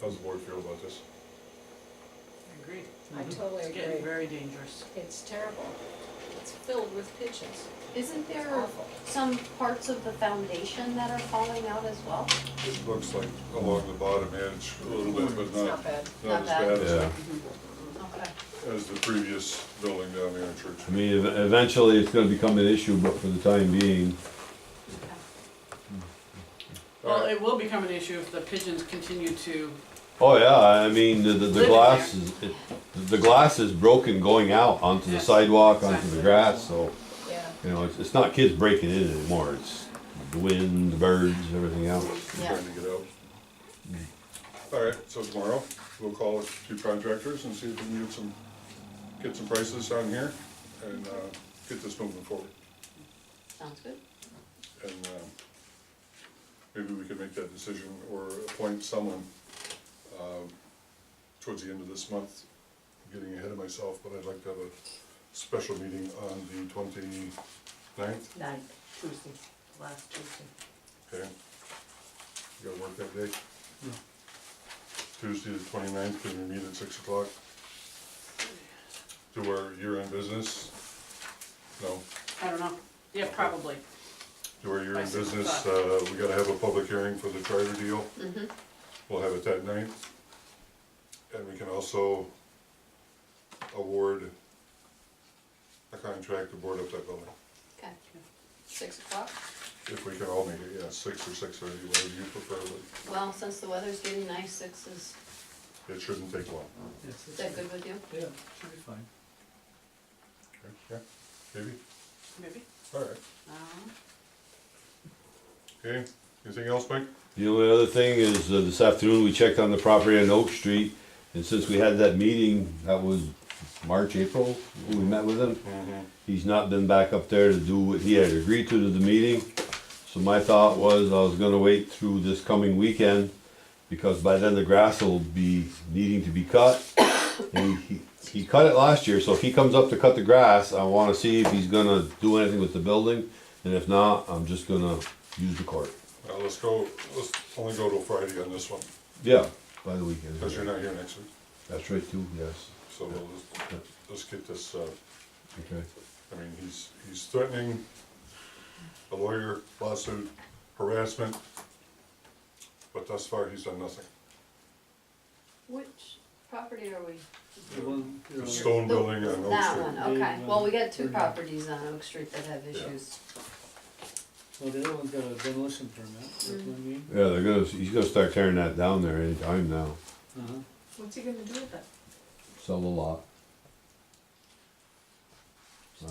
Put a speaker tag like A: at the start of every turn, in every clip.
A: How's the board feel about this?
B: I agree.
C: I totally
B: Mm-hmm. It's getting
C: agree.
B: very dangerous.
C: It's terrible. It's filled with pigeons.
D: Isn't
C: It's
D: there
C: awful.
D: some parts of the foundation that are falling out as well?
A: It looks like along the bottom edge a little bit,
C: It's
A: but
C: not
A: not,
C: bad.
A: not
D: Not
A: as
D: bad.
A: bad as,
D: Okay.
A: as the previous building down there in Church.
E: I mean, ev- eventually it's gonna become an issue, but for the time being,
B: Well, it will become an issue if the pigeons continue to,
E: oh yeah, I mean, the, the, the
B: Living
E: glass is, it, the glass is broken going out onto the
B: Yes,
E: sidewalk, onto
B: exactly.
E: the grass, so,
C: Yeah.
E: you know, it's, it's not kids breaking in anymore, it's the wind, the birds, everything else.
D: Yeah.
A: Trying to get out. All right, so tomorrow, we'll call a few contractors and see if we can get some, get some prices on here and, uh, get this moving forward.
D: Sounds good.
A: And, um, maybe we could make that decision or appoint someone, um, towards the end of this month. I'm Getting ahead of myself, but I'd like to have a special meeting on the twenty-ninth,
F: Ninth, Tuesday, last Tuesday.
A: okay? You gotta work that day? Tuesday the twenty-ninth, can we meet at six o'clock? Do our year-end business? No,
B: I don't know, yeah, probably.
A: do our year-end
B: By six
A: business,
B: o'clock.
A: uh, we gotta have a public hearing for the charter deal.
D: Mm-hmm.
A: We'll have it that night. And we can also award a contract to board up that building.
D: Okay.
C: Six o'clock?
A: If we can all make it, yeah, six or six thirty, whatever you prefer, but
D: Well, since the weather's getting nice, six is,
A: it shouldn't take long.
D: is that good with you?
G: Yeah, should be fine.
A: Okay, Yeah, maybe,
B: Maybe,
A: all right.
B: um,
A: Okay, anything else, Mike?
E: The only other thing is, uh, this afternoon, we checked on the property on Oak Street, and since we had that meeting, that was March, April, we met with them. He's not been back up there to do what he had agreed to to the meeting. So my thought was I was gonna wait through this coming weekend because by then the grass will be needing to be cut. And he, he cut it last year, so if he comes up to cut the grass, I wanna see if he's gonna do anything with the building. And if not, I'm just gonna use the court.
A: Now, Uh, let's go, let's only go till Friday on this one,
E: Yeah, by the weekend.
A: because you're not here next week,
E: That's right too, yes.
A: so we'll just,
E: Yeah,
A: let's get this, uh,
E: Okay.
A: I mean, he's, he's threatening a lawyer, lawsuit, harassment, but thus far, he's done nothing.
D: Which property are we?
G: The one, you know,
A: The stone building on Oak
D: That
A: Street.
D: one, okay. Well, we got two properties on Oak Street that have issues.
G: well, the other one's got a demolition permit, that's what I mean.
E: Yeah, they're gonna, he's gonna start tearing that down there anytime now.
G: Uh-huh.
F: What's he gonna do with it?
E: Sell the lot.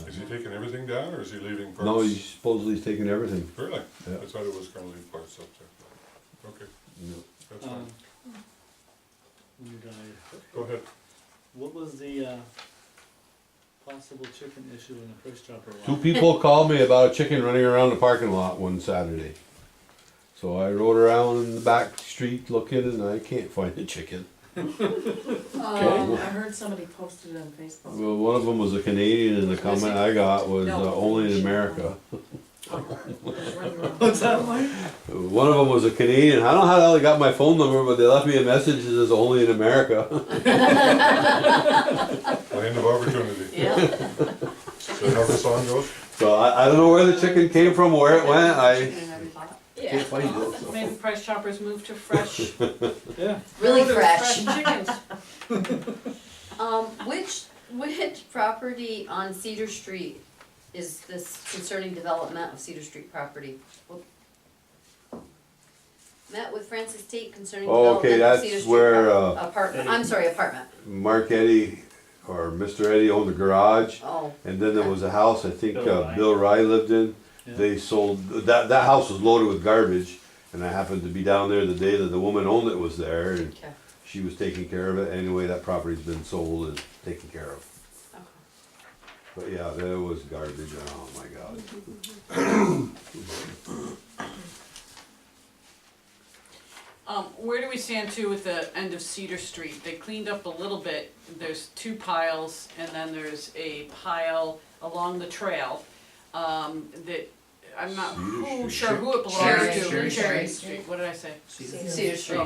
A: Is he taking everything down, or is he leaving parts?
E: No, he's supposedly he's taking everything.
A: Really?
E: Yeah.
A: I thought it was gonna leave parts up there. Okay, that's
G: Um,
A: fine.
G: When you're done, I-
A: Go ahead.
G: what was the, uh, possible chicken issue in the first chopper lot?
E: Two people called me about a chicken running around the parking lot one Saturday. So I rode around in the back street looking and I can't find the chicken.
F: Um, I heard somebody posted it on Facebook.
E: Well, one of them was a Canadian and the comment I got was uh, only in America.
G: What's that like?
E: One of them was a Canadian. I don't know how the hell they got my phone number, but they left me a message that says only in America.
A: Land of opportunity.
D: Yeah.
A: Is that how the song goes?
E: So I, I don't know where the chicken came from, where it went. I
C: Yeah.
E: can't find it. so.
B: maybe Price Choppers move to fresh,
G: Yeah,
D: Really
C: Fresh
D: fresh.
C: chickens.
D: Um, which, which property on Cedar Street is this concerning development of Cedar Street property? Whoop. Met with Francis Tate concerning
E: Oh, okay,
D: development of
E: that's
D: Cedar Street
E: where,
D: prop-
E: uh,
D: apartment, I'm sorry, apartment,
E: Mark Eddy or Mr. Eddy owned the garage.
D: oh,
E: And then there was a house I think
G: Bill
E: uh,
G: Rye.
E: Bill Rye lived in.
G: Yeah.
E: They sold, that, that house was loaded with garbage. And I happened to be down there the day that the woman owned it was there and
D: okay,
E: she was taking care of it. Anyway, that property's been sold and taken care of.
D: okay.
E: But yeah, there was garbage. Oh my God.
B: Um, where do we stand too with the end of Cedar Street? They cleaned up a little bit, there's two piles, and then there's a pile along the trail, um, that, I'm not
E: Cedar
B: who,
E: Street.
B: sure who it belongs to.
D: Cherry Street.
B: Cherry
D: Cherry
B: Street, what did I say?
C: Cedar
D: Cedar Street.